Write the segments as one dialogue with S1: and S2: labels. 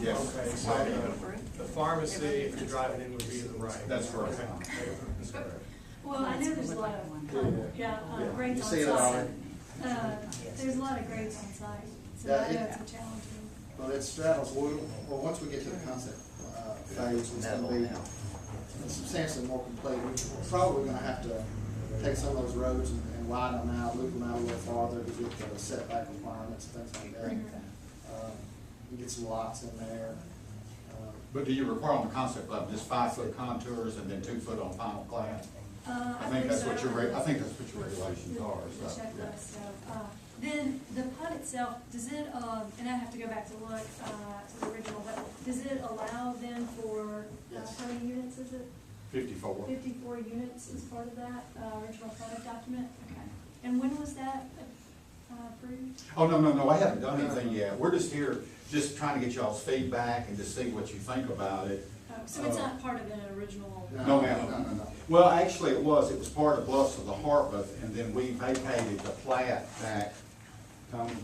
S1: Yes.
S2: Okay, so the the pharmacy, if you're driving in, would be to the right.
S1: That's correct.
S2: Okay. That's correct.
S3: Well, I know there's a lot of, uh, yeah, uh,
S1: Yeah.
S3: grades
S1: You
S3: on
S1: see it all
S3: site.
S1: right.
S3: Uh, There's a lot of grades on site, so
S1: Yeah,
S3: I know
S1: it-
S3: it's a challenge.
S1: Well, it straddles, well, well, once we get to the concept uh, phase, it's gonna be substantially more complete. We're probably gonna have to take some of those roads and and widen them out, loop them out a little farther to get the setback requirements, things like that. Um, and Get some lots in there. Um,
S4: But do you require on the concept level, just five foot contours and then two foot on final plat?
S3: Uh,
S4: I think that's
S3: so.
S4: what your, reg- I think that's what your regulations
S3: The-
S4: are,
S3: the
S4: so.
S3: checklist, so, uh, Then the PUD itself, does it, um, and I have to go back to look uh, to the original, but does it allow then for, uh,
S1: Yes.
S3: how many units is it?
S4: Fifty-four.
S3: Fifty-four units is part of that uh, original product document? Okay. And when was that uh, approved?
S4: Oh, no, no, no, I haven't done anything yet. We're just here, just trying to get y'all's feedback and just see what you think about it.
S3: Oh, So it's
S4: Uh,
S3: not part of an original?
S4: No, ma'am, no, no, no. Well, actually, it was, it was part of Bluffs of the Harpeth, and then we vacated the plat back, um,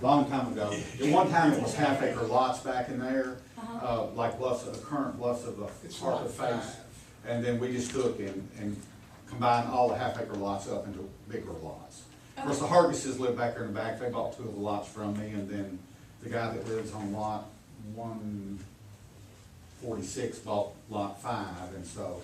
S4: long time ago. At one time, it was half acre lots back in there,
S3: Uh-huh.
S4: uh, like Bluffs of the current Bluffs of the
S2: It's lot
S4: Harpeth face.
S2: five.
S4: And then we just took and, and combined all the half acre lots up into bigger lots. Of course, the
S3: Okay.
S4: Hargises live back there in the back, they bought two of the lots from me, and then the guy that lives on lot one forty-six bought lot five, and so,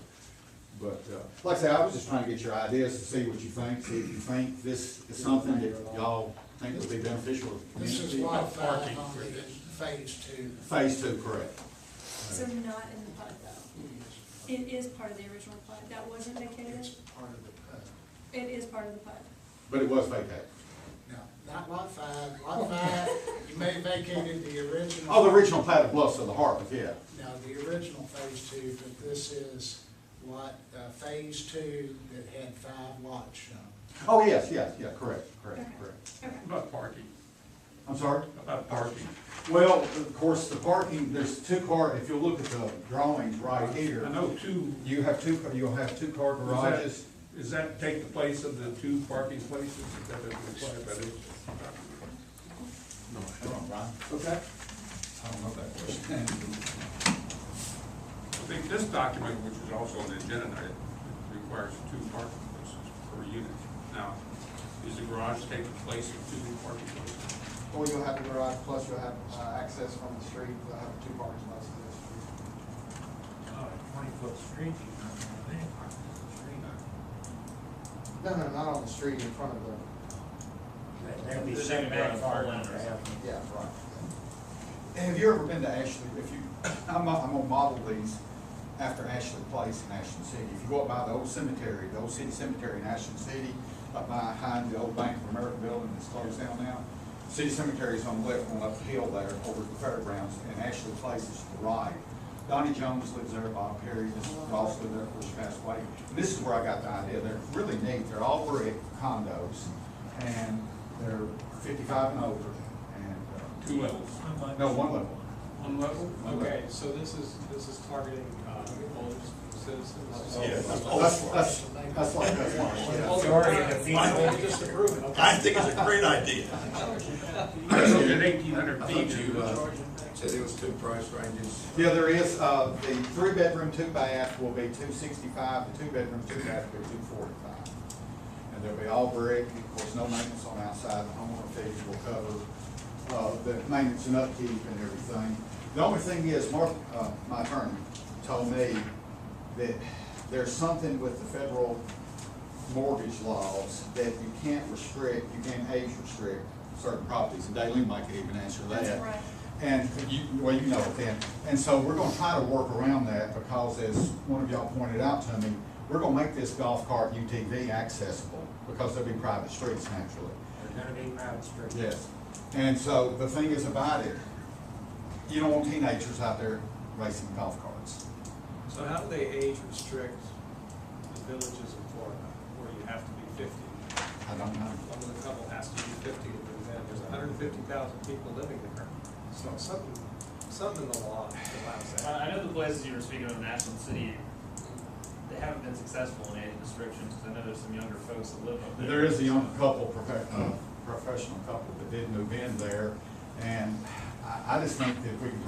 S4: but, uh, like I say, I was just trying to get your ideas to see what you think, see if you think this is something that y'all think would be beneficial to the
S5: This is
S4: community.
S5: lot five on the phase two.
S4: Phase two, correct.
S3: So not in the PUD though? It is part of the original PUD, that wasn't vacated?
S5: It's part of the PUD.
S3: It is part of the PUD.
S4: But it was vacated.
S5: No, not lot five. Lot five, you may have vacated the original.
S4: Oh, the original plat of Bluffs of the Harpeth, yeah.
S5: Now, the original phase two, but this is lot, uh, phase two that had five lots shown.
S4: Oh, yes, yes, yeah, correct, correct, correct.
S3: Okay.
S6: About parking,
S4: I'm sorry?
S6: about parking.
S4: Well, of course, the parking, there's two car, if you look at the drawings right
S6: I
S4: here,
S6: know two,
S4: you have two, you'll have two car
S6: that-
S4: garages.
S6: does that take the place of the two parking places? Is that required by the-
S4: Okay.
S6: I think this document, which is also on the agenda, tonight, it requires two parking places per unit. Now, is the garage taking place of two parking places?
S1: Or you'll have the garage, plus you'll have uh, access from the street, you'll have two parking spots in the street.
S7: Oh, Twenty-foot street, you're not gonna have any parking on the street.
S1: No, no, not on the street, in front of the,
S7: That- That'd be sent back far down there.
S1: yeah, right.
S4: Have you ever been to Ashley, if you, I'm, I'm gonna model these after Ashley Place in Ashland City. If you go up by the old cemetery, the old city cemetery in Ashland City, up behind the old Bank of America building that's closed down now, city cemetery is on the left, on up the hill there, over the fairgrounds, and Ashley Place is to the right. Donnie Jones lives there, Bob Perry, this is also there, of course, passed away. And this is where I got the idea, they're really neat, they're all brick condos, and they're fifty-five and older, and, uh,
S6: Two levels.
S4: no, one level.
S6: One level?
S2: Okay, so this is, this is targeting uh, older citizens?
S4: That's, that's, that's like, that's large,
S2: Older-
S7: Sorry, if you-
S2: I just approved it.
S8: I think it's a great idea.
S6: At eighteen hundred feet.
S8: you, uh, said there was two price ranges.
S4: yeah. Yeah, there is, uh, the three-bedroom, two-bath will be two sixty-five, the two-bedroom, two-bath will be two forty-five. And they'll be all brick, and of course, no maintenance on outside, the homeowner fees will cover, uh, the maintenance and upkeep and everything. The only thing is, Mark, uh, my attorney told me that there's something with the federal mortgage laws that you can't restrict, you can't age restrict certain properties, and Daleen might could even answer that.
S3: That's right.
S4: And you, well, you know it then, and so we're gonna try to work around that, because as one of y'all pointed out to me, we're gonna make this golf cart UTV accessible, because there'll be private streets naturally.
S7: There's gonna be private streets.
S4: Yes, and so the thing is about it, you don't want teenagers out there racing golf carts.
S2: So how do they age restrict the villages in Florida, where you have to be fifty?
S4: I don't know.
S2: One of the couple has to be fifty, and then there's hundred and fifty thousand people living there. So something, something in the law allows
S9: Uh,
S2: that.
S9: I know the places you were speaking of in Ashland City, they haven't been successful in age restrictions, because I know there's some younger folks that live up there.
S4: There is a young couple, profe- uh, professional couple that did move in there, and I, I just think that if we can